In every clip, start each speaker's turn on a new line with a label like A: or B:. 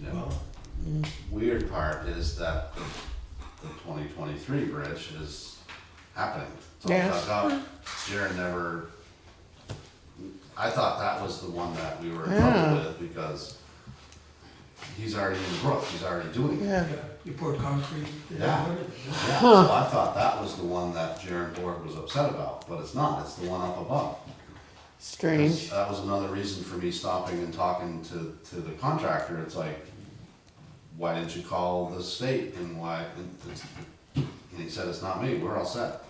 A: No.
B: Well,
C: Weird part is that the, the twenty twenty-three bridge is happening. It's all
D: Yeah.
C: dug up. Jared never, I thought that was the one that we were in trouble
D: Yeah.
C: with because he's already in the brook, he's already doing it.
D: Yeah,
B: yeah, you poured concrete. they
C: Yeah.
B: poured it, yeah.
C: Yeah, so I thought that was the one that Jared Borg was upset about, but it's not, it's the one up above.
D: strange.
C: That was another reason for me stopping and talking to, to the contractor, it's like, why didn't you call the state and why, and it's- and he said, it's not me, we're all set.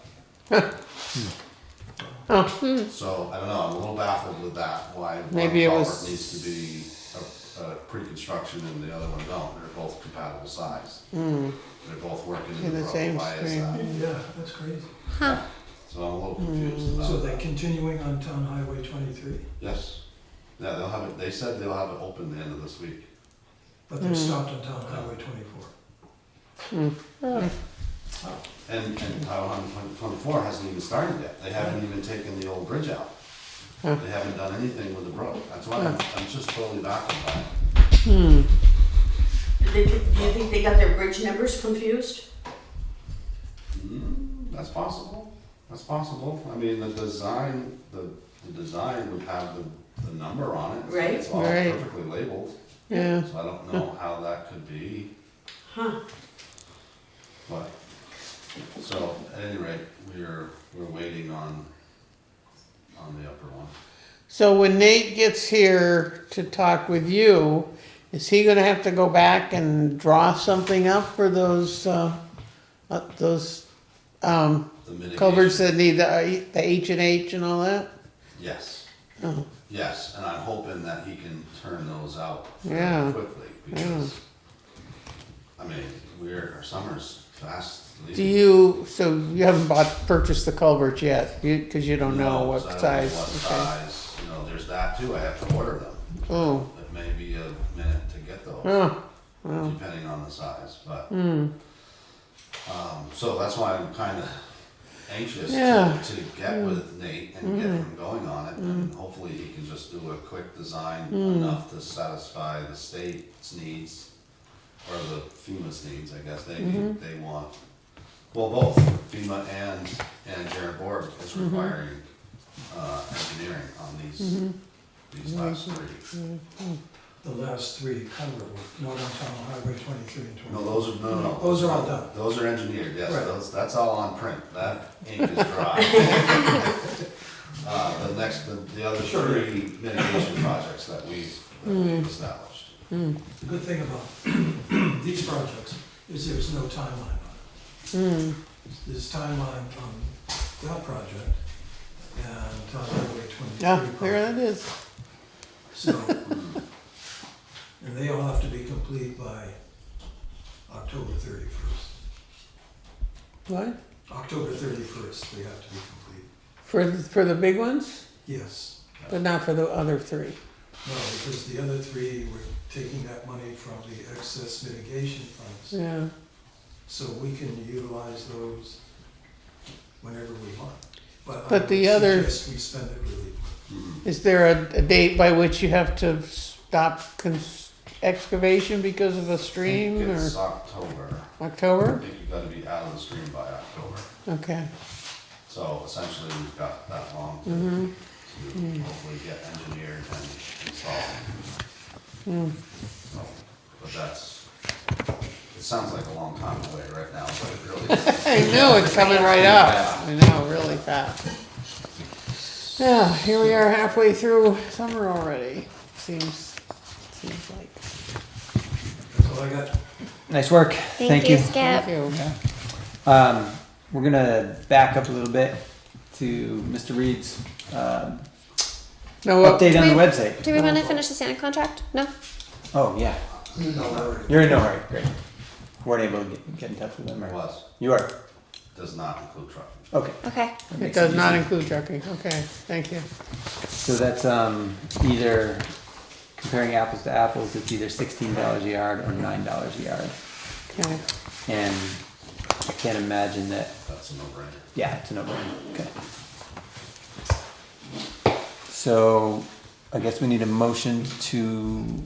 D: Oh.
C: So, I don't know, I'm a little baffled with that, why one
D: Maybe it was-
C: culvert needs to be a, a pre-construction and the other one don't, they're both compatible size. They're both working
D: In
C: in the
D: Hmm. the
C: road,
D: same
C: why is
D: stream.
C: that?
B: Yeah, that's crazy.
C: So I'm a little
D: Hmm.
C: confused about
B: So
C: that.
B: they're continuing on Town Highway twenty-three,
C: Yes. Yeah, they'll have it, they said they'll have it open the end of this week.
B: but
D: Mm-hmm.
B: they've stopped on Town Highway twenty-four.
C: And, and Highway 124 hasn't even started yet. They haven't even taken the old bridge out.
D: Huh.
C: They haven't done anything with the road. That's why I'm, I'm just totally baffled by it.
D: Hmm.
E: Did they, do you think they got their bridge numbers confused?
C: Mm, That's possible. That's possible. I mean, the design, the, the design would have the, the number on it. so
E: Right.
C: It's all
D: Right.
C: perfectly labeled,
D: Yeah.
C: so I don't know how that could be.
E: Huh.
C: But, so, at any rate, we're, we're waiting on, on the upper one.
D: So when Nate gets here to talk with you, is he gonna have to go back and draw something up for those, uh, uh, those, um,
C: The mitigation.
D: culverts that need the, the H and H and all that?
C: Yes,
D: Oh,
C: yes, and I'm hoping that he can turn those out
D: Yeah.
C: fairly quickly, because, I mean, we're, our summer's fast
D: do
C: leaving.
D: you, so you haven't bought, purchased the culverts yet, you, cause you don't know what
C: so I don't know
D: size,
C: What
D: okay.
C: size, you know, there's that too, I have to order them,
D: Oh,
C: it may be a minute to get those.
D: oh, wow,
C: depending on the size, but,
D: hmm,
C: um, so that's why I'm kinda anxious
D: Yeah. Hmm.
C: to, to get with Nate and get him going on it, and hopefully he can just do a quick design
D: Hmm.
C: enough to satisfy the state's needs, or the FEMA's needs, I guess, they,
D: Mm-hmm.
C: need- they want, well, both FEMA and, and Jared Borg is
D: Mm-hmm.
C: requiring, uh, engineering on these,
D: Mm-hmm.
C: these last three.
B: The last three cover work, not on Town Highway twenty-three and
C: No,
B: twenty-four.
C: those are, no, no.
B: Those are all done.
C: Those are engineered, yes,
B: Right.
C: those, that's all on print, that ink is dry. Uh, the next, the, the other
B: Sure.
C: three mitigation projects that we've, that we've established.
B: The good thing about these projects is there's no timeline on it.
D: hmm,
B: There's timeline on that project and Town Highway twenty-three.
D: yeah,
B: project.
D: there it is,
B: So, and they all have to be complete by October thirty-first.
D: what,
B: October thirty-first, they have to be complete.
D: for, for the big ones,
B: Yes,
D: but not for the other three?
B: no, because the other three, we're taking that money from the excess mitigation funds.
D: Yeah,
B: So we can utilize those whenever we want. But I
D: But
B: would
D: the other-
B: suggest we spend it really,
D: is there a, a date by which you have to stop cons- excavation because of a
C: I think
D: stream or
C: It's October, I
D: October?
C: think you gotta be out of the stream by October,
D: Okay,
C: so essentially we've got that long to, to hopefully get engineered and installed. So, But that's, it sounds like a long time away right now, but it really isn't.
D: I know it's coming right up, I know, really fast. Yeah, here we are halfway through summer already, seems, seems like.
B: that's all I got.
F: Nice work.
G: Thank, you, Skip.
D: Thank you.
F: Um, we're gonna back up a little bit to Mr. Reed's um,
D: Now, what-
F: update on the
G: we-
F: website.
G: Do we want to finish the Santa contract? No.
F: Oh yeah, you're in no hurry. Great. Weren't able to get, get in touch with them.
C: It
F: Or
C: was,
F: You are.
C: does not include trucking.
F: Okay.
G: Okay.
F: That
D: it
F: makes
D: does not
F: easy.
D: include trucking, okay, thank you.
F: So that's um, either comparing apples to apples. It's either sixteen dollars a yard or nine dollars a yard,
D: Okay,
F: and I can't imagine that.
C: That's a no-brainer.
F: Yeah, it's a no-brainer. Okay. So I guess we need a motion to